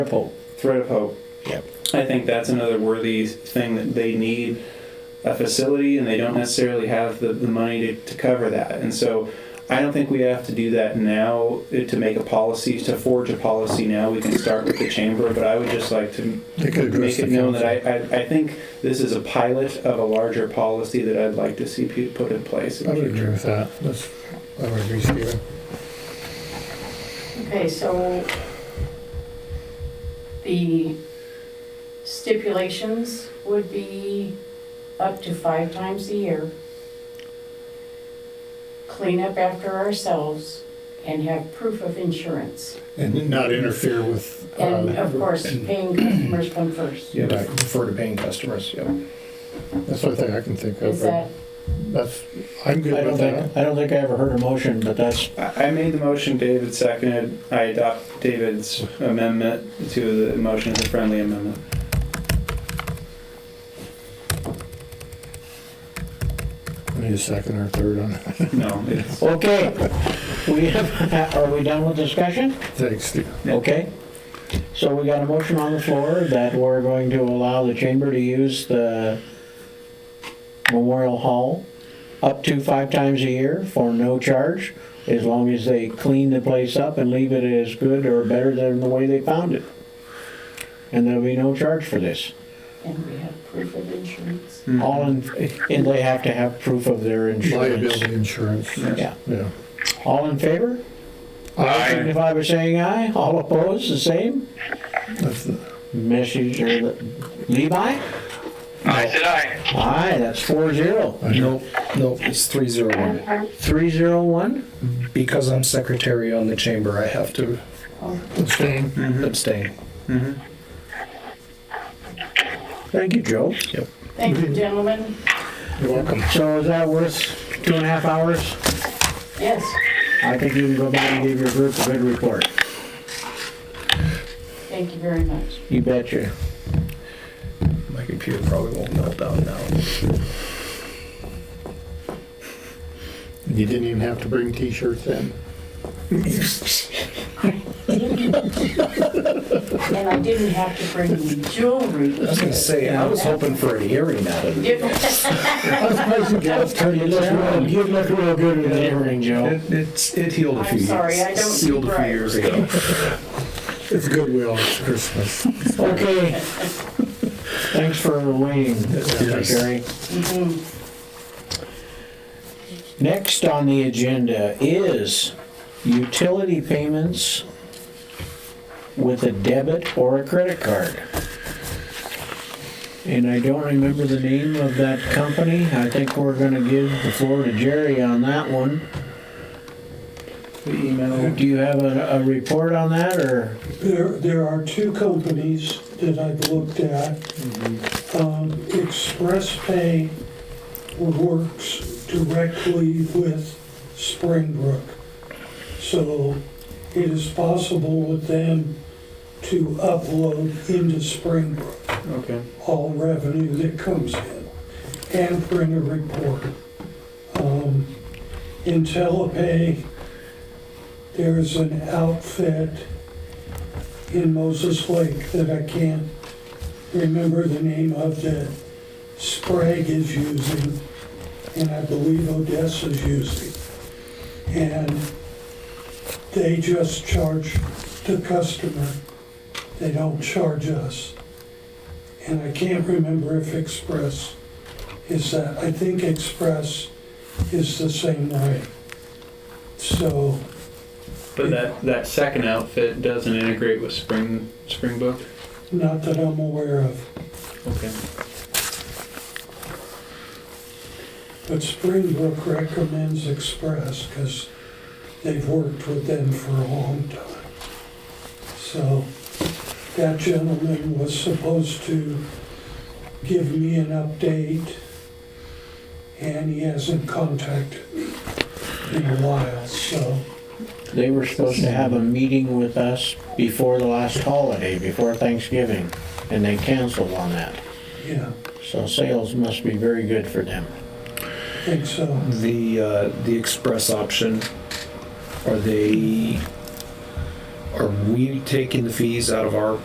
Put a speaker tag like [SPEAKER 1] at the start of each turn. [SPEAKER 1] hope.
[SPEAKER 2] Thread of hope.
[SPEAKER 3] Yep.
[SPEAKER 1] I think that's another worthy thing that they need a facility and they don't necessarily have the, the money to, to cover that. And so I don't think we have to do that now eh, to make a policy, to forge a policy now. We can start with the chamber, but I would just like to
[SPEAKER 3] They could address
[SPEAKER 1] make it
[SPEAKER 3] the
[SPEAKER 1] known that I, I, I think this is a pilot of a larger policy that I'd like to see pu- put in place. in
[SPEAKER 3] I
[SPEAKER 1] the
[SPEAKER 3] would
[SPEAKER 1] future.
[SPEAKER 3] agree with that. That's, I would agree, Stephen.
[SPEAKER 4] Okay, so the stipulations would be up to five times a year. Clean up after ourselves and have proof of insurance.
[SPEAKER 3] And not interfere with. uh,
[SPEAKER 4] And of course,
[SPEAKER 3] and-
[SPEAKER 4] paying customers come first.
[SPEAKER 3] Yeah,
[SPEAKER 2] Right, Refer to paying customers, yeah.
[SPEAKER 3] That's one thing I can think of.
[SPEAKER 4] Is that,
[SPEAKER 3] That's, I'm
[SPEAKER 5] I
[SPEAKER 3] good
[SPEAKER 5] don't
[SPEAKER 3] with that.
[SPEAKER 5] think, I don't think I ever heard a motion, but that's,
[SPEAKER 1] I I made the motion, David seconded. I adopt David's amendment to the motion as a friendly amendment.
[SPEAKER 3] I need a second or third on that.
[SPEAKER 1] No, it's,
[SPEAKER 5] okay. We have, are we done with discussion?
[SPEAKER 3] Thanks, Stephen.
[SPEAKER 5] Okay. So we got a motion on the floor that we're going to allow the chamber to use the Memorial Hall up to five times a year for no charge, as long as they clean the place up and leave it as good or better than the way they found it. And there'll be no charge for this.
[SPEAKER 4] and we have proof of insurance.
[SPEAKER 3] Mm-hmm.
[SPEAKER 5] All in, and they have to have proof of their insurance.
[SPEAKER 3] Liability insurance,
[SPEAKER 5] Yeah.
[SPEAKER 3] yeah.
[SPEAKER 5] All in favor?
[SPEAKER 3] I,
[SPEAKER 5] Signify by saying aye. All opposed, the same.
[SPEAKER 3] that's, the-
[SPEAKER 5] Message or Levi?
[SPEAKER 6] I said aye.
[SPEAKER 5] Aye, that's four zero.
[SPEAKER 3] I know,
[SPEAKER 2] Nope, nope, it's three zero one.
[SPEAKER 5] Three zero one?
[SPEAKER 2] Because I'm secretary on the chamber, I have to
[SPEAKER 4] Oh,
[SPEAKER 3] abstain.
[SPEAKER 2] abstain.
[SPEAKER 5] Thank you, Joe.
[SPEAKER 4] Thank you, gentlemen.
[SPEAKER 3] You're welcome.
[SPEAKER 5] So is that worth two and a half hours?
[SPEAKER 4] Yes,
[SPEAKER 5] I think you can go back and give your group a good report.
[SPEAKER 4] thank you very much.
[SPEAKER 5] You betcha.
[SPEAKER 2] My computer probably won't melt down now.
[SPEAKER 3] You didn't even have to bring t-shirts in.
[SPEAKER 4] And I didn't have to bring any jewelry.
[SPEAKER 2] I was gonna say, I was hoping for an earring out of it.
[SPEAKER 5] You look real, you look real good with the earring, Joe.
[SPEAKER 2] It, it's, it healed a
[SPEAKER 4] I'm
[SPEAKER 2] few years.
[SPEAKER 4] sorry, I don't
[SPEAKER 2] Healed a
[SPEAKER 4] keep
[SPEAKER 2] few
[SPEAKER 4] records.
[SPEAKER 2] years ago.
[SPEAKER 3] It's goodwill, it's Christmas.
[SPEAKER 5] Okay. Thanks for waiting,
[SPEAKER 3] Yes.
[SPEAKER 5] Secretary. Next on the agenda is utility payments with a debit or a credit card. And I don't remember the name of that company. I think we're gonna give the floor to Jerry on that one.
[SPEAKER 1] the email.
[SPEAKER 5] Do you have a, a report on that, or?
[SPEAKER 7] There, there are two companies that I've looked at. Um, Express Pay works directly with Springbrook. So it is possible with them to upload into Springbrook
[SPEAKER 1] Okay.
[SPEAKER 7] all revenue that comes in and print a report. Um, IntelliPay, there's an outfit in Moses Lake that I can't remember the name of that Sprague is using, and I believe Odessa is using. And they just charge the customer, they don't charge us and I can't remember if Express is that. I think Express is the same way. So,
[SPEAKER 1] But that, that second outfit doesn't integrate with Spring, Springbook?
[SPEAKER 7] not that I'm aware of,
[SPEAKER 1] Okay.
[SPEAKER 7] but Springbrook recommends Express because they've worked with them for a long time. So, that gentleman was supposed to give me an update, and he hasn't contacted me in a while, so.
[SPEAKER 5] They were supposed to have a meeting with us before the last holiday, before Thanksgiving, and they canceled on that.
[SPEAKER 7] Yeah,
[SPEAKER 5] So sales must be very good for them.
[SPEAKER 7] I think so.
[SPEAKER 2] The, uh, the express option, are they, are we taking the fees out of our